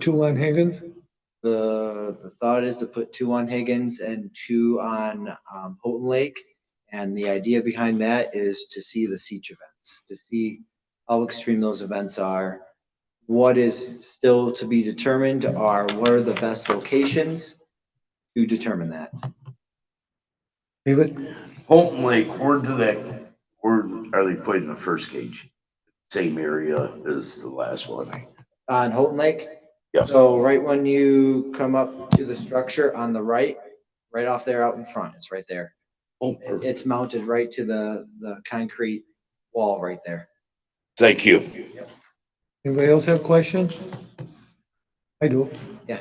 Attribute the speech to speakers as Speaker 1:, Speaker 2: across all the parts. Speaker 1: Two on Higgins?
Speaker 2: The, the thought is to put two on Higgins and two on um, Houghton Lake. And the idea behind that is to see the siege events, to see how extreme those events are. What is still to be determined are what are the best locations to determine that.
Speaker 1: David?
Speaker 3: Holton Lake, where do that, where are they putting the first cage? Same area as the last one.
Speaker 2: On Houghton Lake?
Speaker 3: Yeah.
Speaker 2: So right when you come up to the structure on the right, right off there out in front, it's right there.
Speaker 3: Oh,
Speaker 2: It-
Speaker 3: perfect.
Speaker 2: It's mounted right to the, the concrete wall right there.
Speaker 3: Thank you.
Speaker 1: Anybody else have questions? I do.
Speaker 2: Yeah.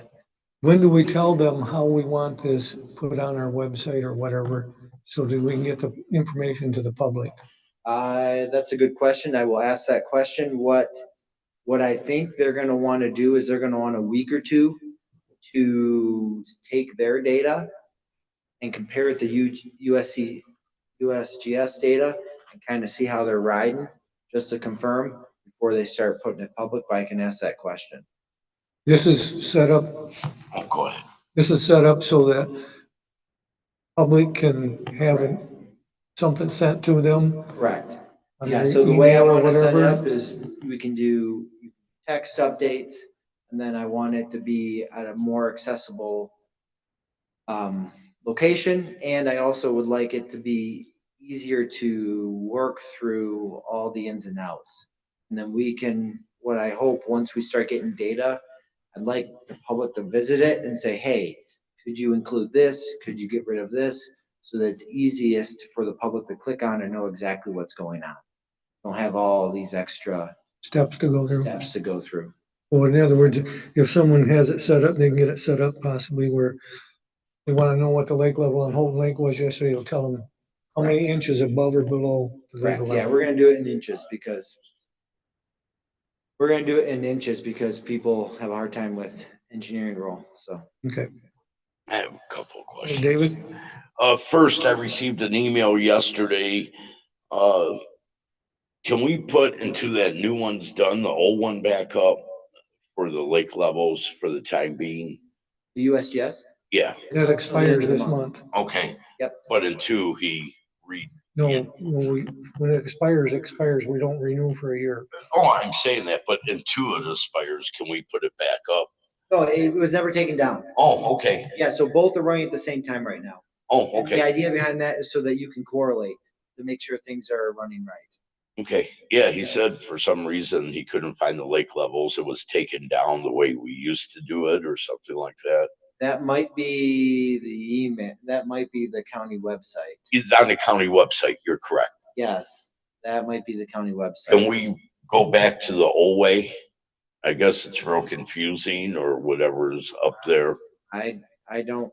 Speaker 1: When do we tell them how we want this put on our website or whatever, so that we can get the information to the public?
Speaker 2: I, Uh, that's a good question. I will ask that question. What, what I think they're gonna wanna do is they're gonna want a week or two to take their data and compare it to U, USC, USGS data and kind of see how they're riding, just to confirm before they start putting it public, but I can ask that question.
Speaker 1: This is set up,
Speaker 3: Oh, go ahead.
Speaker 1: this is set up so that public can have an- something sent to them.
Speaker 2: Correct.
Speaker 1: on
Speaker 2: Yeah,
Speaker 1: their
Speaker 2: so the way I
Speaker 1: email or
Speaker 2: want to set it
Speaker 1: whatever.
Speaker 2: up is we can do text updates and then I want it to be at a more accessible um, location. And I also would like it to be easier to work through all the ins and outs. And then we can, what I hope, once we start getting data, I'd like the public to visit it and say, hey, could you include this? Could you get rid of this? So that it's easiest for the public to click on and know exactly what's going on don't have all these extra
Speaker 1: Steps to go through.
Speaker 2: steps to go through.
Speaker 1: Or in other words, if someone has it set up, they can get it set up possibly where they want to know what the lake level on Holton Lake was yesterday, it'll tell them how many inches above or below the lake
Speaker 2: Yeah,
Speaker 1: level.
Speaker 2: we're gonna do it in inches because we're gonna do it in inches because people have a hard time with engineering role, so.
Speaker 1: Okay,
Speaker 3: I have a couple of questions.
Speaker 1: David?
Speaker 3: Uh, first, I received an email yesterday. Uh, can we put into that new one's done, the old one back up for the lake levels for the time being?
Speaker 2: The USGS?
Speaker 3: Yeah,
Speaker 1: that expires this month.
Speaker 3: okay.
Speaker 2: Yep.
Speaker 3: But in two, he read, Yeah.
Speaker 1: No, when we, when it expires, it expires, we don't renew for a year.
Speaker 3: oh, I'm saying that, but in two of the spires, can we put it back up?
Speaker 2: No, it was never taken down.
Speaker 3: Oh, okay.
Speaker 2: Yeah, so both are running at the same time right now.
Speaker 3: Oh,
Speaker 2: And The
Speaker 3: okay,
Speaker 2: idea behind that is so that you can correlate to make sure things are running right.
Speaker 3: okay. Yeah, he said for some reason he couldn't find the lake levels. It was taken down the way we used to do it or something like that.
Speaker 2: That might be the email, that might be the county website.
Speaker 3: It's on the county website, you're correct.
Speaker 2: Yes, that might be the county website.
Speaker 3: Can we go back to the old way? I guess it's real confusing or whatever's up there.
Speaker 2: I, I don't.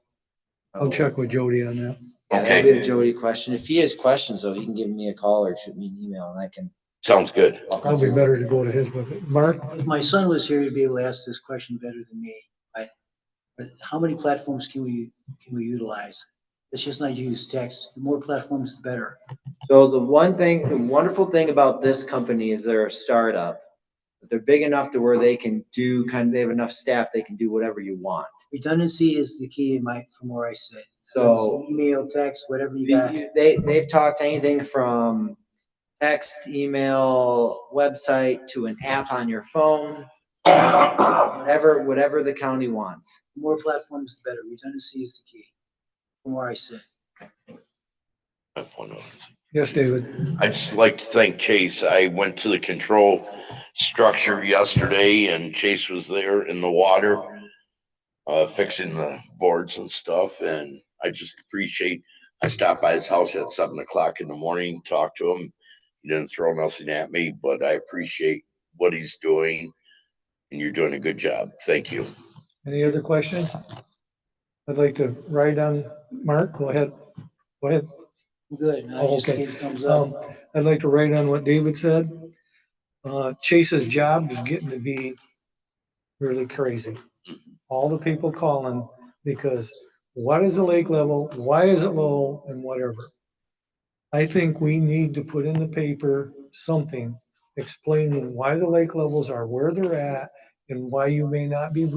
Speaker 1: I'll check with Jody on that.
Speaker 2: Yeah, that'd be
Speaker 3: Okay,
Speaker 2: a Jody question. If he has questions though, he can give me a call or shoot me an email and I can.
Speaker 3: sounds good.
Speaker 1: Probably better to go to his with it. Mark,
Speaker 4: If my son was here, he'd be able to ask this question better than me. I- But how many platforms can we, can we utilize? It's just not use text. The more platforms, the better.
Speaker 2: So the one thing, the wonderful thing about this company is they're a startup. But They're big enough to where they can do kind of, they have enough staff, they can do whatever you want.
Speaker 4: Redundancy is the key in my, from where I sit.
Speaker 2: So
Speaker 4: Email, text, whatever you got.
Speaker 2: they, they've talked anything from text, email, website to an app on your phone, whatever, whatever the county wants.
Speaker 4: The More platforms, the better. Redundancy is the key from where I sit.
Speaker 3: I have one other
Speaker 1: yes, David,
Speaker 3: I'd just like to thank Chase. I went to the control structure yesterday and Chase was there in the water. Uh, fixing the boards and stuff and I just appreciate, I stopped by his house at seven o'clock in the morning, talked to him. He didn't throw nothing at me, but I appreciate what he's doing. And you're doing a good job. Thank you.
Speaker 1: any other questions? I'd like to ride on, Mark, go ahead, go ahead.
Speaker 4: Good. I
Speaker 1: Oh,
Speaker 4: just
Speaker 1: okay.
Speaker 4: gave thumbs up.
Speaker 1: Um, I'd like to write on what David said. Uh, Chase's job is getting to be really crazy. All the people calling because what is the lake level? Why is it low and whatever? I think we need to put in the paper something explaining why the lake levels are where they're at and why you may not be